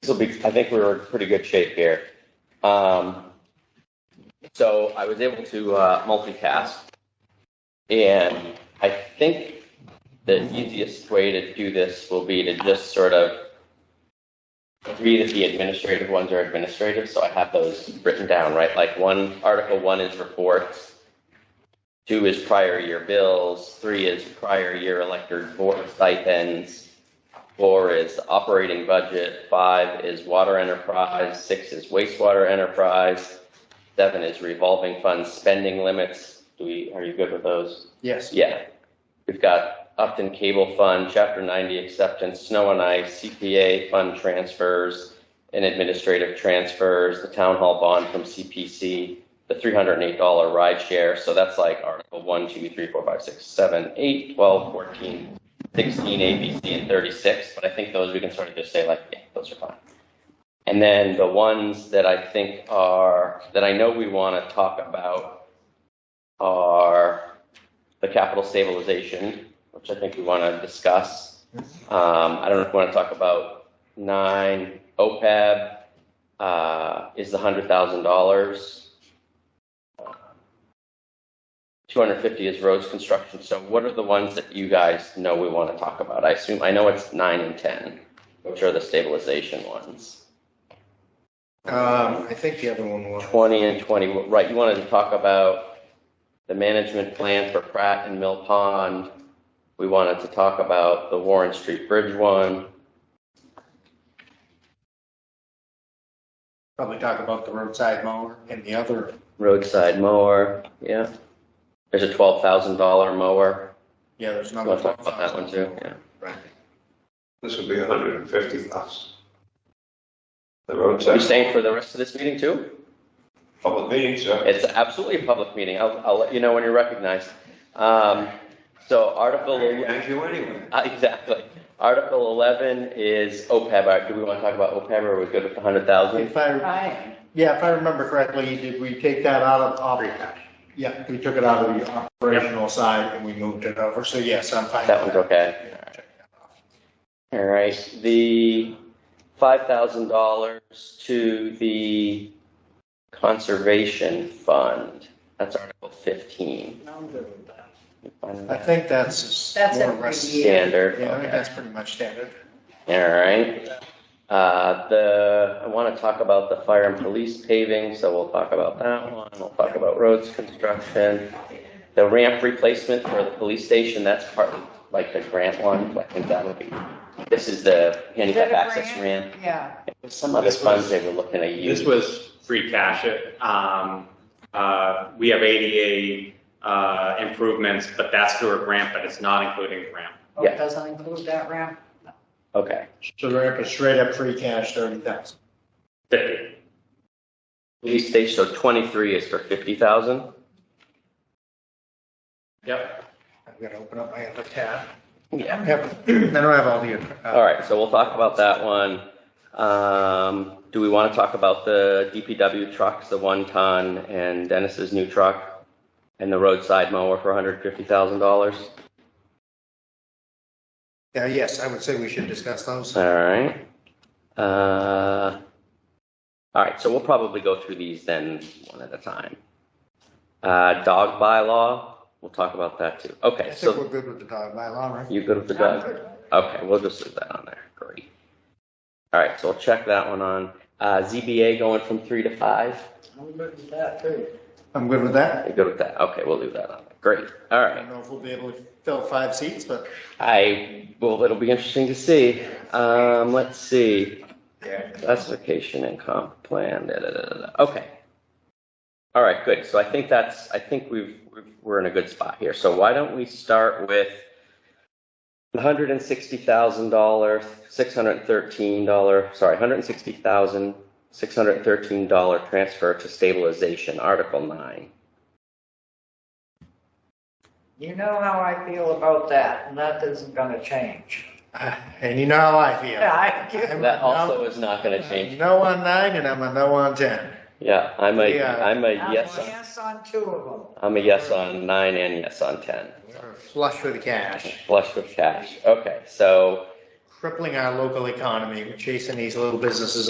This'll be, I think we were in pretty good shape here. Um, so I was able to uh, multicast, and I think the easiest way to do this will be to just sort of read if the administrative ones are administrative. So I have those written down, right? Like one article one is reports, two is prior year bills, three is prior year elected board stipends, four is operating budget, five is water enterprise, six is wastewater enterprise, seven is revolving fund spending limits. Do we, are you good with those? Yes. Yeah. We've got Upton Cable Fund, Chapter 90 acceptance, snow and ice, CPA fund transfers, and administrative transfers, the town hall bond from CPC, the $308 ride share. So that's like Article 1, 2, 3, 4, 5, 6, 7, 8, 12, 14, 16, A, B, C, and 36. But I think those we can sort of just say like, yeah, those are fine. And then the ones that I think are, that I know we want to talk about are the capital stabilization, which I think we want to discuss. Um, I don't know if we want to talk about nine, OPEB, uh, is the hundred thousand dollars. Uh, Two hundred fifty is roads construction. So what are the ones that you guys know we want to talk about? I assume, I know it's nine and ten, which are the stabilization ones. Um, I think the other one was, 20 and 20, right, you wanted to talk about the management plan for Pratt and Mill Pond. We wanted to talk about the Warren Street Bridge one. probably talk about the roadside mower and the other, roadside mower, yeah. There's a twelve thousand dollar mower. yeah, there's You another. wanna talk about that one too? Yeah. Right. This would be hundred and fifty plus. The Are you roadside staying for the rest of this meeting too? public meeting, sir. It's absolutely a public meeting. I'll, I'll let you know when you're recognized. Um, so Article, Thank you anyway. uh, exactly. Article eleven is OPEB. All right, Do we wanna talk about OPEB or are we good with the hundred thousand? If I, Right. yeah, if I remember correctly, did we take that out of op? Yeah, we took it out of the operational side and we moved it over, so yes, I'm fine. That one's okay. okay. All right, the five thousand dollars to the conservation fund, that's Article fifteen. You find I that think that's. That's more it or for less- the year. Standard, Yeah, I think okay, that's pretty much standard. all right. Uh, the, I wanna talk about the fire and police paving, so we'll talk about that one, we'll talk about roads construction. The ramp replacement for the police station, that's part, of, like the grant one, I think that would be, this is the handicap Is that a access grant? ramp. Yeah, There's some other This was- funds they were looking to use. This was free cash. Um, uh, we have ADA, uh, improvements, but that's through a grant, but it's not including the ramp. oh, Yeah. it doesn't include that ramp. Okay, So we're up to straight up free cash, thirty thousand. Fifty. police station, so twenty-three is for fifty thousand? Yep. I'm gonna open up my other tab. Yeah. I have- I don't have all the. uh, All right, so we'll talk about that one. Um, do we want to talk about the DPW trucks, the one ton and Dennis's new truck? And the roadside mower for hundred fifty thousand dollars? Yeah, Uh, yes, I would say we should discuss those. All right. Uh, all right, so we'll probably go through these then one at a time. Uh, dog bylaw, we'll talk about that too. I Okay, think so we're good with the dog bylaw, right? you good with the I'm dog? good. Okay, we'll just leave that on there. Great. All right, so we'll check that one on. Uh, ZBA going from three to five. I'm good with that too. I'm good with that. You're good with that? Okay, we'll leave that on. there. Great. All I right. don't know if we'll be able to fill five seats, but I well, it'll be interesting to see. Um, let's see. Classification and comp plan. Da, da, da, da, da. Okay. All right, good. So I think that's. I think we've we're in a good spot here. So why don't we start with hundred and sixty thousand dollar, six hundred thirteen dollar, sorry, hundred and sixty thousand, six hundred thirteen dollar transfer to stabilization, Article nine. You know how I feel about that, and that isn't gonna change. uh, and you know how I feel. I do. I'm a That no- also is not going to I'm change. No on nine and I'm a no on ten. Yeah, I'm a, Yeah. I'm a I'm a yes, on- Yes on two of them. I'm a yes on nine and yes on ten. We're Flush with cash. Flush with cash. Okay, so crippling our local economy, We're chasing these little businesses